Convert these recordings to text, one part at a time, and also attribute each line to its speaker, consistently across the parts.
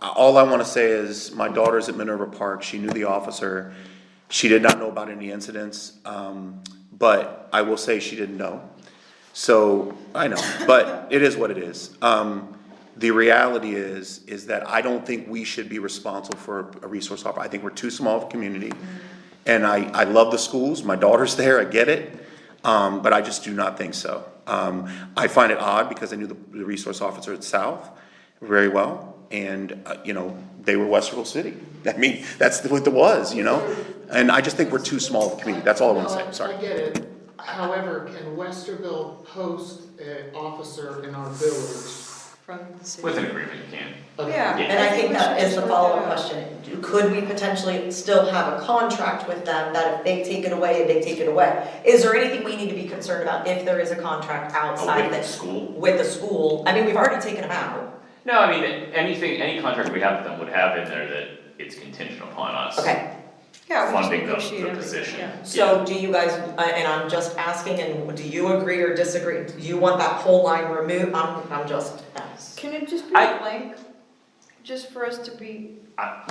Speaker 1: Uh, all I wanna say is, my daughter's at Minerva Park, she knew the officer, she did not know about any incidents, um, but I will say she didn't know. So, I know, but it is what it is. Um, the reality is, is that I don't think we should be responsible for a resource officer, I think we're too small of a community. And I, I love the schools, my daughter's there, I get it, um, but I just do not think so. Um, I find it odd because I knew the, the resource officer at South very well, and, uh, you know, they were Westerville City. I mean, that's what it was, you know? And I just think we're too small of a community, that's all I wanna say,
Speaker 2: No,
Speaker 1: I'm sorry.
Speaker 2: Um, I get it, however, can Westerville post an officer in our village?
Speaker 3: from the city.
Speaker 4: With an agreement, you can.
Speaker 3: Yeah.
Speaker 5: And I think that is the follow-up question, could we potentially still have a contract with them that if they take it away, they take it away? Is there anything we need to be concerned about if there is a contract
Speaker 4: Oh,
Speaker 5: outside
Speaker 4: with the
Speaker 5: that,
Speaker 4: school?
Speaker 5: with the school? I mean, we've already taken them out,
Speaker 4: No, I mean, anything, any contract we have with them would have in there that it's contingent upon us
Speaker 5: okay,
Speaker 3: Yeah, we
Speaker 4: funding
Speaker 3: can
Speaker 4: the,
Speaker 3: negotiate
Speaker 4: the
Speaker 3: everything,
Speaker 4: position.
Speaker 3: yeah.
Speaker 5: so do you guys, I- and I'm just asking, and do you agree or disagree, do you want that whole line removed? I'm, I'm just, asking.
Speaker 3: Can it just be
Speaker 4: I-
Speaker 3: blank? Just for us to be,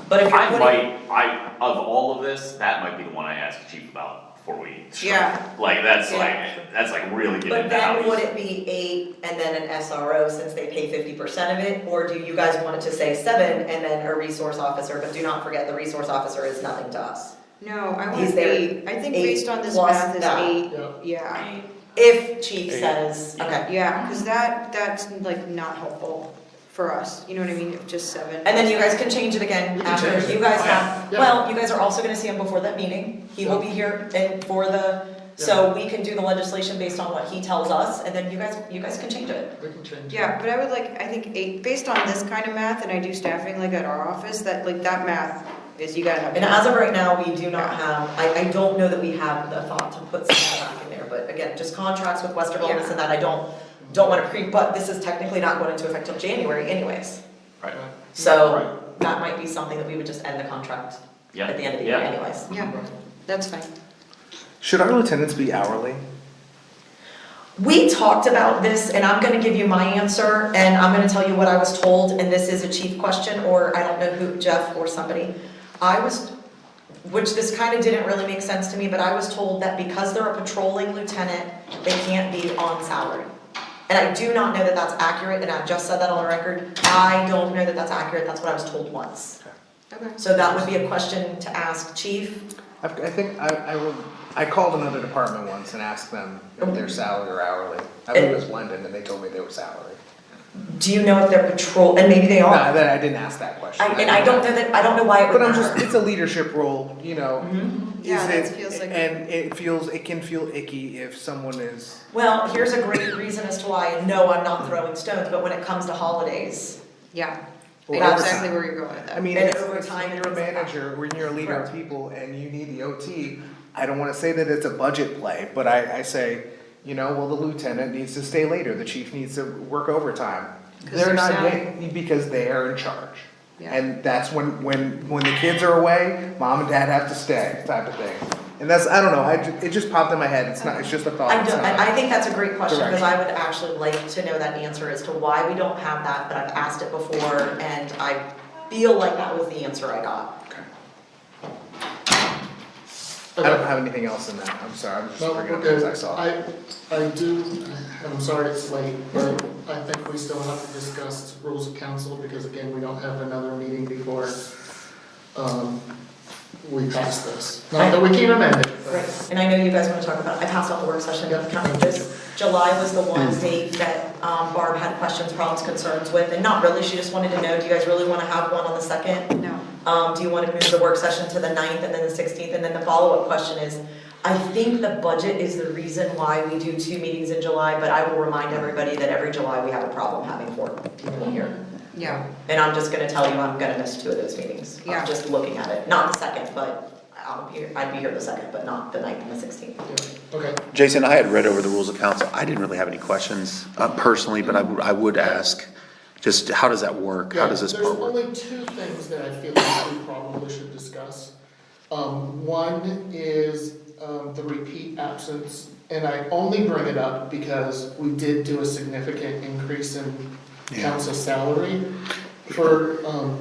Speaker 5: but if you're
Speaker 4: I
Speaker 5: putting,
Speaker 4: might, I, of all of this, that might be the one I asked the chief about before we. struck.
Speaker 3: Yeah.
Speaker 4: Like, that's
Speaker 3: Yeah.
Speaker 4: like, that's like really getting
Speaker 5: but
Speaker 4: into how
Speaker 5: then
Speaker 4: we-
Speaker 5: would it be eight and then an SRO since they pay fifty percent of it? Or do you guys want it to say seven and then a resource officer, but do not forget, the resource officer is nothing to us?
Speaker 3: no, I
Speaker 5: Is
Speaker 3: want
Speaker 5: there
Speaker 3: eight, I think
Speaker 5: eight
Speaker 3: based on this
Speaker 5: plus
Speaker 3: math is
Speaker 5: that?
Speaker 3: eight,
Speaker 2: Yeah.
Speaker 3: yeah.
Speaker 5: If chief says, okay,
Speaker 3: Yeah, cause that, that's like not helpful for us, you know what I mean, if just seven.
Speaker 5: and then you guys can change it again
Speaker 2: We can
Speaker 5: after,
Speaker 2: change it.
Speaker 5: you guys
Speaker 4: Yeah.
Speaker 5: have,
Speaker 2: Yeah.
Speaker 5: well, you guys are also gonna see him before that meeting. He will be here and for the, so we can do the legislation based on what he tells us, and then you guys, you guys can change it.
Speaker 2: We can change it.
Speaker 3: Yeah, but I would like, I think eight, based on this kind of math, and I do staffing like at our office, that like that math is, you gotta have.
Speaker 5: And as of right now, we do not have, I, I don't know that we have the thought to put something back in there, but again, just contracts with Westerville and this and that, I don't, don't wanna pre, but this is technically not going into effect till January anyways.
Speaker 4: Right,
Speaker 2: Uh,
Speaker 5: So that might be something that we would just end the contract
Speaker 4: yeah,
Speaker 5: at the end of the year
Speaker 4: yeah.
Speaker 5: anyways.
Speaker 3: Yeah, that's fine.
Speaker 6: Should our lieutenants be hourly?
Speaker 5: We talked about this and I'm gonna give you my answer and I'm gonna tell you what I was told and this is a chief question or I don't know who, Jeff or somebody. I was, which this kinda didn't really make sense to me, but I was told that because they're a patrolling lieutenant, they can't be on salary. And I do not know that that's accurate and I just said that on the record. I don't know that that's accurate, that's what I was told once.
Speaker 3: Okay.
Speaker 5: So that would be a question to ask chief.
Speaker 6: I, I think I, I will. I called another department once and asked them if they're salary or hourly. I think it was London, and they told me they were salary.
Speaker 5: Do you know if they're patrol, and maybe they
Speaker 6: No,
Speaker 5: are.
Speaker 6: then I didn't ask that question.
Speaker 5: Oh. I- And I don't know that, I don't know why it would
Speaker 6: But I'm
Speaker 5: matter.
Speaker 6: just. It's a leadership role, you know. Is
Speaker 3: Mm-hmm. Yeah, that
Speaker 6: it-
Speaker 3: feels like-
Speaker 6: And it feels. It can feel icky if someone is.
Speaker 5: Well, here's a great reason as to why, and no, I'm not throwing stones, but when it comes to holidays,
Speaker 3: Yeah, I
Speaker 6: Well,
Speaker 3: know
Speaker 6: overtime.
Speaker 3: exactly where you're going with that.
Speaker 6: I mean,
Speaker 5: And
Speaker 6: it's, it's
Speaker 5: overtime
Speaker 6: when you're a
Speaker 5: and things like that.
Speaker 6: manager, when you're a leader of
Speaker 5: Correct.
Speaker 6: people and you need the OT, I don't wanna say that it's a budget play, but I, I say, you know, well, the lieutenant needs to stay later, the chief needs to work overtime.
Speaker 3: 'Cause
Speaker 6: They're
Speaker 3: they're
Speaker 6: not
Speaker 3: salaried.
Speaker 6: getting, because they are in charge.
Speaker 3: Yeah.
Speaker 6: And that's when, when, when the kids are away, mom and dad have to stay, type of thing. And that's, I don't know, I, ju- it just popped in my head, it's not, it's just a thought,
Speaker 5: I
Speaker 6: it's
Speaker 5: don't,
Speaker 6: not-
Speaker 5: I, I think that's a great question, because I
Speaker 6: Direction.
Speaker 5: would actually like to know that answer as to why we don't have that, but I've asked it before, and I feel like that was the answer I got.
Speaker 6: Okay. I
Speaker 2: Okay.
Speaker 6: don't have anything else in that, I'm sorry, I'm just
Speaker 2: No,
Speaker 6: bringing up
Speaker 2: okay.
Speaker 6: things I saw.
Speaker 2: I, I do, and I'm sorry it's late, but I think we still have to discuss rules of council, because again, we don't have another meeting before, um, we pass this. Not that we can amend it, but
Speaker 5: And I know you guys wanna talk about, I passed out the work session,
Speaker 2: Yeah.
Speaker 5: kind of this, July was the one date that, um, Barb had questions, problems, concerns with, and not really, she just wanted to know, do you guys really wanna have one on the second?
Speaker 3: No,
Speaker 5: Um, do you wanna move the work session to the ninth and then the sixteenth, and then the follow-up question is, I think the budget is the reason why we do two meetings in July, but I will remind everybody that every July we have a problem having four people here.
Speaker 3: yeah,
Speaker 5: And I'm just gonna tell you, I'm gonna miss two of those meetings,
Speaker 3: Yeah.
Speaker 5: I'm just looking at it, not the second, but I'll be here, I'd be here the second, but not the ninth and the sixteenth.
Speaker 2: yeah, okay.
Speaker 1: Jason, I had read over the rules of council. I didn't really have any questions uh, personally, but I, would- I would ask, just how does that work? How does this
Speaker 2: Yeah,
Speaker 1: part work?
Speaker 2: There's only two things that I feel like we probably should discuss. Um, one is, um, the repeat absence, and I only bring it up because we did do a significant increase in
Speaker 1: Yeah.
Speaker 2: council salary for, um,